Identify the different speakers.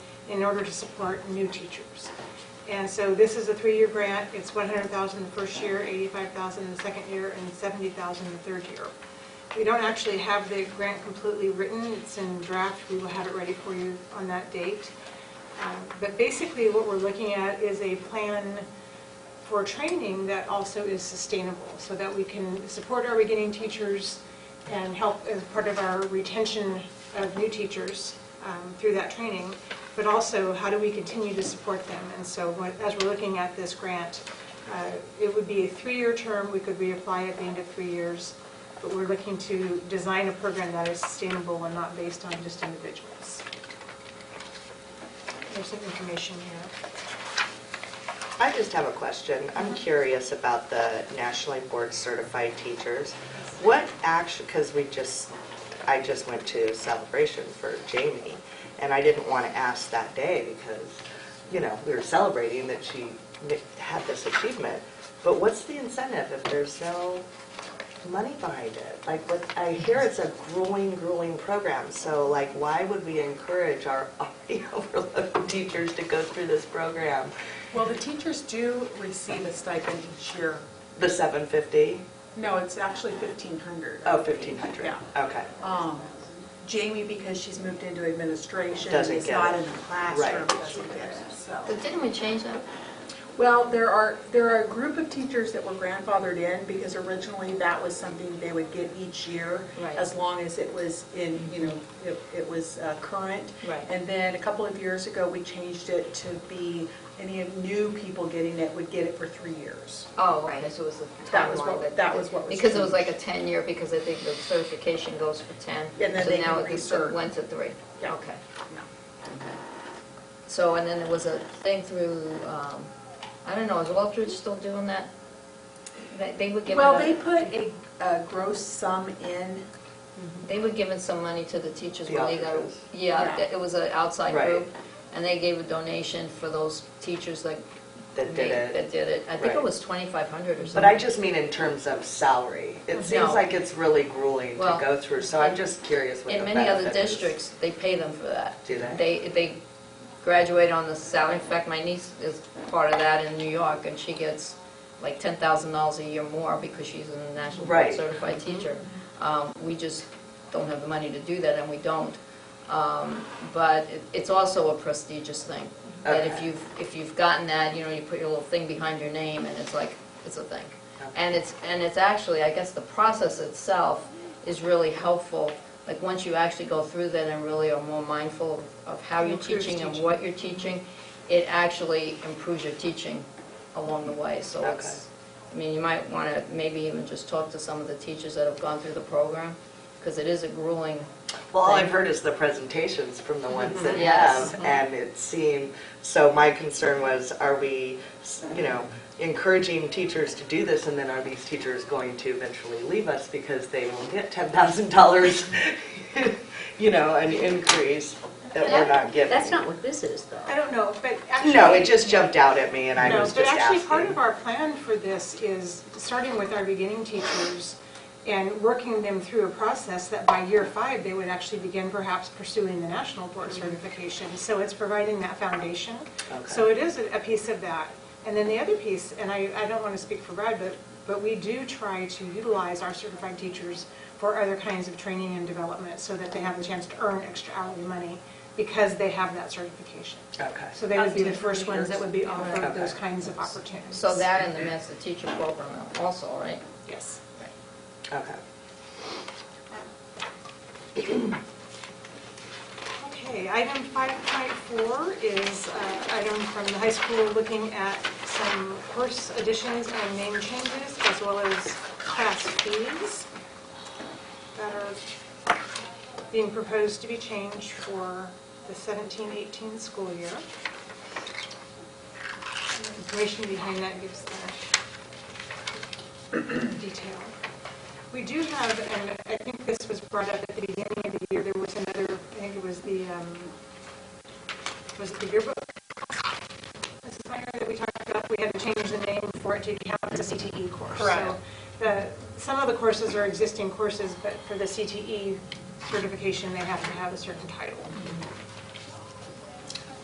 Speaker 1: in order to support new teachers. And so this is a three-year grant, it's 100,000 the first year, 85,000 the second year, and 70,000 the third year. We don't actually have the grant completely written, it's in draft, we will have it ready for you on that date. Um, But basically, what we're looking at is a plan for training that also is sustainable, so that we can support our beginning teachers and help as part of our retention of new teachers um, through that training, but also how do we continue to support them? And so what- as we're looking at this grant, uh, it would be a three-year term, we could reapply at the end of three years, but we're looking to design a program that is sustainable and not based on just individuals. There's some information here.
Speaker 2: I just have a question. I'm curious about the nationally board certified teachers. What action, because we just, I just went to celebration for Jamie, and I didn't want to ask that day because, you know, we were celebrating that she had this achievement. But what's the incentive if there's no money behind it? Like, what, I hear it's a grueling, grueling program, so like, why would we encourage our already overloaded teachers to go through this program?
Speaker 3: Well, the teachers do receive a stipend each year.
Speaker 2: The 750?
Speaker 3: No, it's actually 1,500.
Speaker 2: Oh, 1,500.
Speaker 3: Yeah.
Speaker 2: Okay.
Speaker 3: Um, Jamie, because she's moved into administration,
Speaker 2: Doesn't
Speaker 3: is
Speaker 2: get
Speaker 3: not
Speaker 2: it.
Speaker 3: in the classroom,
Speaker 2: Right.
Speaker 3: doesn't get it, so.
Speaker 4: But didn't we change that?
Speaker 3: Well, there are, there are a group of teachers that were grandfathered in because originally that was something they would get each year
Speaker 4: Right.
Speaker 3: as long as it was in, you know, it, it was uh, current.
Speaker 4: Right.
Speaker 3: And then a couple of years ago, we changed it to be any new people getting it would get it for three years.
Speaker 4: Oh, right, so it was the
Speaker 3: That was
Speaker 4: timeline
Speaker 3: what- that was what was
Speaker 4: Because it was like
Speaker 3: changed.
Speaker 4: a 10-year, because I think the certification goes for 10.
Speaker 3: And then
Speaker 4: so
Speaker 3: they
Speaker 4: now
Speaker 3: can
Speaker 4: it goes-
Speaker 3: recert.
Speaker 4: Went to three.
Speaker 3: Yeah.
Speaker 4: Okay.
Speaker 3: No.
Speaker 4: So, and then there was a thing through, um, I don't know, is Aldridge still doing that? They- They were giving,
Speaker 3: Well, they
Speaker 4: a-
Speaker 3: put a, a gross sum in,
Speaker 4: they were giving some money to the teachers
Speaker 2: The
Speaker 4: when they got,
Speaker 2: Aldridges.
Speaker 4: yeah,
Speaker 3: Yeah.
Speaker 4: th- it was an outside
Speaker 2: Right.
Speaker 4: group. And they gave a donation for those teachers like.
Speaker 2: That
Speaker 4: me-
Speaker 2: did
Speaker 4: That
Speaker 2: it.
Speaker 4: did it. I think it
Speaker 2: Right.
Speaker 4: was 2,500 or something.
Speaker 2: But I just mean in terms of salary. It seems
Speaker 4: No.
Speaker 2: like it's really grueling to
Speaker 4: Well,
Speaker 2: go through, so I'm
Speaker 4: in-
Speaker 2: just curious what the
Speaker 4: In many other
Speaker 2: benefit is.
Speaker 4: districts, they pay them for that.
Speaker 2: Do they?
Speaker 4: They, they graduate on the salary. In fact, my niece is part of that in New York, and she gets like ten thousand dollars a year more because she's a national board
Speaker 2: Right.
Speaker 4: certified teacher. Um, we just don't have the money to do that, and we don't. Um, but it, it's also a prestigious thing. That if
Speaker 2: Okay.
Speaker 4: you've, if you've gotten that, you know, you put your little thing behind your name, and it's like, it's a thing.
Speaker 2: Okay.
Speaker 4: And it's, and it's actually, I guess the process itself is really helpful. Like, once you actually go through that and really are more mindful of how you're
Speaker 1: Improves
Speaker 4: teaching and
Speaker 1: teaching.
Speaker 4: what you're teaching, it actually improves your teaching along the way. So it's, I mean, you might want to maybe even just talk to some of the teachers that have gone through the program, because it is a grueling,
Speaker 2: Well, all I've heard is the presentations from the ones that
Speaker 4: Mm-hmm. Yes.
Speaker 2: have, and it seemed, so my concern was, are we, you know, encouraging teachers to do this, and then are these teachers going to eventually leave us because they won't get $10,000, you know, an increase that we're not giving?
Speaker 5: That's not what this is,
Speaker 1: I
Speaker 5: though.
Speaker 1: don't know, but actually.
Speaker 2: No, it just jumped out at me, and I
Speaker 1: No,
Speaker 2: was
Speaker 1: but
Speaker 2: just
Speaker 1: actually, part
Speaker 2: asking.
Speaker 1: of our plan for this is starting with our beginning teachers and working them through a process that by year five, they would actually begin perhaps pursuing the national board
Speaker 2: Mm-hmm.
Speaker 1: certification. So it's providing that foundation. So it is a a piece of that. And then the other piece, and I, I don't want to speak for Brad, but, but we do try to utilize our certified teachers for other kinds of training and development so that they have the chance to earn extra hourly money because they have that certification.
Speaker 2: Okay.
Speaker 1: So they would be the first ones that would be offered those
Speaker 2: Okay.
Speaker 1: kinds of opportunities.
Speaker 4: so that and the master teacher program also, right?
Speaker 1: Yes.
Speaker 2: Okay.
Speaker 1: Okay, item 5.4 is uh, item from the high school looking at some course additions and name changes as well as class fees that are being proposed to be changed for the 17-18 school year. And the Information behind that gives the detail. We do have, and I think this was brought up at the beginning of the year, there was another, I think it was the, um, was it the yearbook? Mrs. Meyer, that we talked about, we had to change the name for it to count as a CTE E course.
Speaker 3: Correct.
Speaker 1: So the, some of the E courses are existing courses, but for the CTE certification, they have to have a certain title.